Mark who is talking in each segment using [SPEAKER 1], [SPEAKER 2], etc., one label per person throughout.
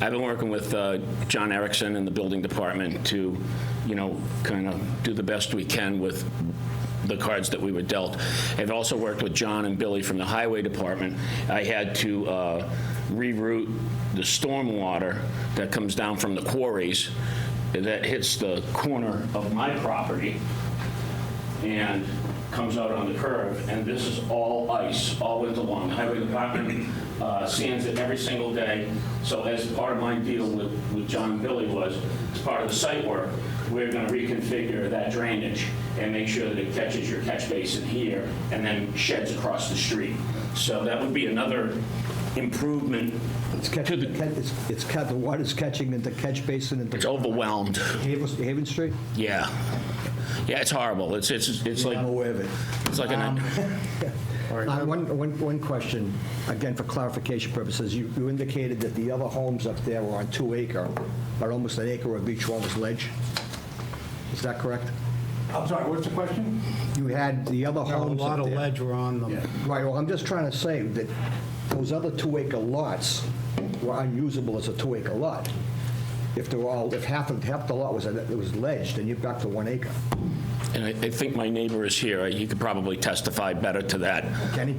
[SPEAKER 1] I've been working with uh, John Erickson and the building department to, you know, kind of do the best we can with the cards that we were dealt. I've also worked with John and Billy from the highway department. I had to uh, reroute the stormwater that comes down from the quarries that hits the corner of my property and comes out on the curve, and this is all ice all winter long. The Highway Department uh, sands it every single day, so as part of my deal with, with John and Billy was, as part of the site work, we're gonna reconfigure that drainage and make sure that it catches your catch basin here and then sheds across the street. So that would be another improvement
[SPEAKER 2] It's
[SPEAKER 1] to
[SPEAKER 2] catching,
[SPEAKER 1] the,
[SPEAKER 2] it's, it's cut, the water's catching into catch basin
[SPEAKER 1] it's
[SPEAKER 2] into
[SPEAKER 1] overwhelmed,
[SPEAKER 2] Haven, Haven Street?
[SPEAKER 1] yeah. Yeah, it's horrible, it's, it's, it's like,
[SPEAKER 2] I'm aware Um, of it.
[SPEAKER 1] it's like an,
[SPEAKER 2] Uh, One, one, one question, again, for clarification purposes, you, you indicated that the other homes up there were on two acre, or almost an acre of each one was ledge? Is that correct?
[SPEAKER 3] I'm sorry, what's the question?
[SPEAKER 2] You had the other
[SPEAKER 4] A
[SPEAKER 2] homes
[SPEAKER 4] lot
[SPEAKER 2] up
[SPEAKER 4] of
[SPEAKER 2] there.
[SPEAKER 4] ledge were on them.
[SPEAKER 2] Right, well, I'm just trying to say that those other two-acre lots were unusable as a two-acre lot. If they were all, if half of, half the lot was, it was ledged, then you're back to one acre.
[SPEAKER 1] And I, I think my neighbor is here. He could probably testify better to that.
[SPEAKER 2] Kenny?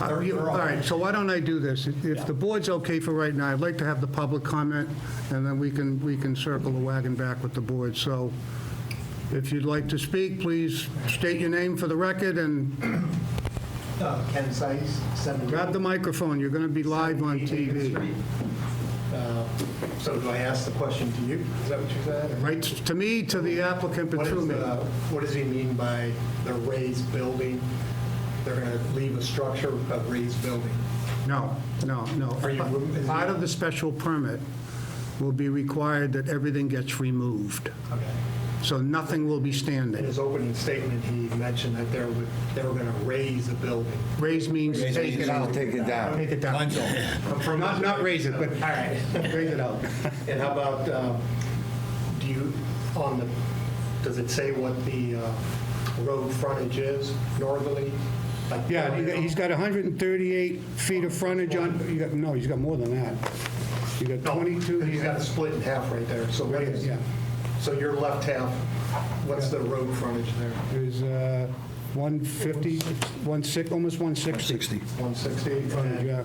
[SPEAKER 4] Uh, you- All right, so why don't I do this? If- If the board's okay for right now, I'd like to have the public comment, and then we can, we can circle the wagon back with the board. So if you'd like to speak, please state your name for the record and
[SPEAKER 5] Uh, Ken Seitz, 70.
[SPEAKER 4] grab the microphone. You're going to be live on TV.
[SPEAKER 5] Uh, So do I ask the question to you? Is that what you said? or-
[SPEAKER 4] Right, to me, to the applicant, but
[SPEAKER 5] What
[SPEAKER 4] to
[SPEAKER 5] is
[SPEAKER 4] me.
[SPEAKER 5] the- What does he mean by the raised building? They're going to leave a structure, a raised building?
[SPEAKER 4] No, no, no.
[SPEAKER 5] Are you- is it-
[SPEAKER 4] Part of the special permit will be required that everything gets removed,
[SPEAKER 5] Okay.
[SPEAKER 4] so nothing will be
[SPEAKER 5] In
[SPEAKER 4] standing.
[SPEAKER 5] his opening statement, he mentioned that they were, they were going to raise a building.
[SPEAKER 4] Raise means
[SPEAKER 6] Raise
[SPEAKER 4] take it
[SPEAKER 6] means
[SPEAKER 4] out.
[SPEAKER 6] take it down.
[SPEAKER 4] Take it down. Not, not raise it, but
[SPEAKER 5] All right.
[SPEAKER 4] raise it out.
[SPEAKER 5] And how about, um, do you, on the, does it say what the uh, road frontage is northerly? Like,
[SPEAKER 4] Yeah, you got- he's got 138 feet of frontage on, you got, no, he's got more than that. You got
[SPEAKER 5] No,
[SPEAKER 4] 22,
[SPEAKER 5] He's got it split in half right there, so what is,
[SPEAKER 4] Yeah.
[SPEAKER 5] so your left half, what's the road frontage there?
[SPEAKER 4] there's uh, 150, 160, almost 160.
[SPEAKER 5] 160?
[SPEAKER 4] frontage, yeah.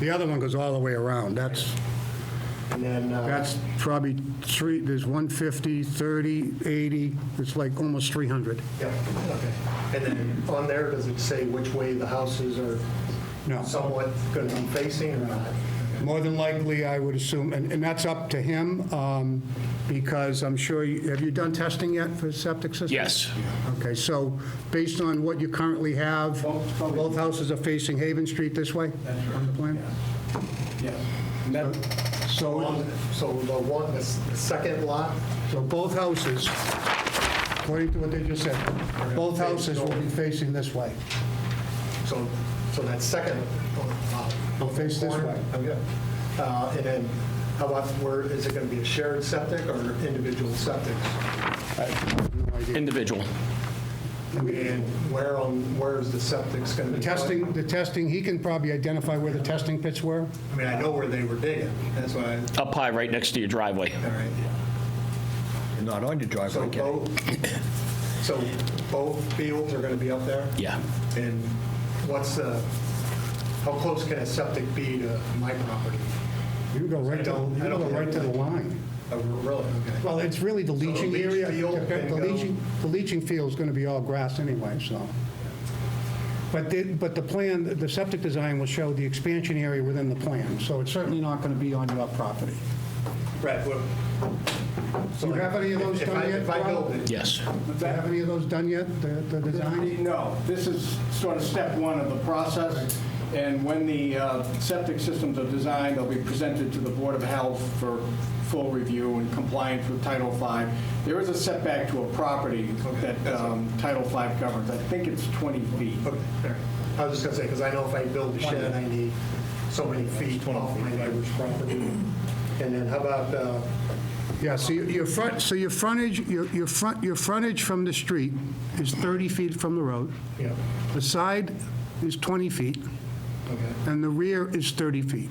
[SPEAKER 4] The other one goes all the way around, that's,
[SPEAKER 5] And then, uh,
[SPEAKER 4] that's probably three, there's 150, 30, 80, it's like almost 300.
[SPEAKER 5] yeah, okay. And then on there, does it say which way the houses are
[SPEAKER 4] No.
[SPEAKER 5] somewhat going to be facing or not?
[SPEAKER 4] More than likely, I would assume, and and that's up to him, um, because I'm sure, you- have you done testing yet for septic system?
[SPEAKER 1] Yes.
[SPEAKER 4] Okay, so based on what you currently have, both houses are facing Haven Street this way? That's right. So,
[SPEAKER 5] On- So the one, the s- the second lot,
[SPEAKER 4] so both houses, according to what they just said, both houses will be facing this way.
[SPEAKER 5] so, so that second. uh,
[SPEAKER 4] They'll face this
[SPEAKER 5] corner,
[SPEAKER 4] way.
[SPEAKER 5] Okay. Uh, And then how about where, is it going to be a shared septic or individual septic?
[SPEAKER 1] Individual.
[SPEAKER 5] And where on, where is the septic's going to
[SPEAKER 4] The
[SPEAKER 5] be?
[SPEAKER 4] testing, the testing, he can probably identify where the testing pits were?
[SPEAKER 5] I mean, I know where they were digging, that's why, I-
[SPEAKER 1] Up high, right next to your driveway.
[SPEAKER 5] all right.
[SPEAKER 2] You're not on your
[SPEAKER 5] So
[SPEAKER 2] driveway, Kenny.
[SPEAKER 5] both, so both fields are going to be up there?
[SPEAKER 1] Yeah.
[SPEAKER 5] And what's the, how close can a septic be to my property?
[SPEAKER 4] You go right to, you go right to the line.
[SPEAKER 5] Oh, Really? Okay.
[SPEAKER 4] Well, it's really the leaching
[SPEAKER 5] leach
[SPEAKER 4] area.
[SPEAKER 5] field can
[SPEAKER 4] The
[SPEAKER 5] go-
[SPEAKER 4] leaching, the leaching field's gonna be all grass anyway, so. But the, but the plan, the septic design will show the expansion area within the plan, so it's certainly not gonna be on your property.
[SPEAKER 5] Right. well,
[SPEAKER 4] Do you have any of those
[SPEAKER 5] if I-
[SPEAKER 4] done yet?
[SPEAKER 5] If I build
[SPEAKER 4] Ron?
[SPEAKER 5] it,
[SPEAKER 1] Yes.
[SPEAKER 4] Do you have any of those done yet, the, the design?
[SPEAKER 3] No, this is sort of step one of the process, and when the uh, septic systems are designed, they'll be presented to the Board of Health for full review and compliance with Title V. There is a setback to a property that um, Title V governs. I think it's 20 feet.
[SPEAKER 5] okay, all right. I was just going to say, because I know if I build a shed, I need so many feet off my neighbor's property. And then how about, uh,
[SPEAKER 4] Yeah, so your- your front, so your frontage, your, your front, your frontage from the street is 30 feet from the road.
[SPEAKER 5] you know,
[SPEAKER 4] The side is 20 feet,
[SPEAKER 5] okay.
[SPEAKER 4] and the rear is 30 feet.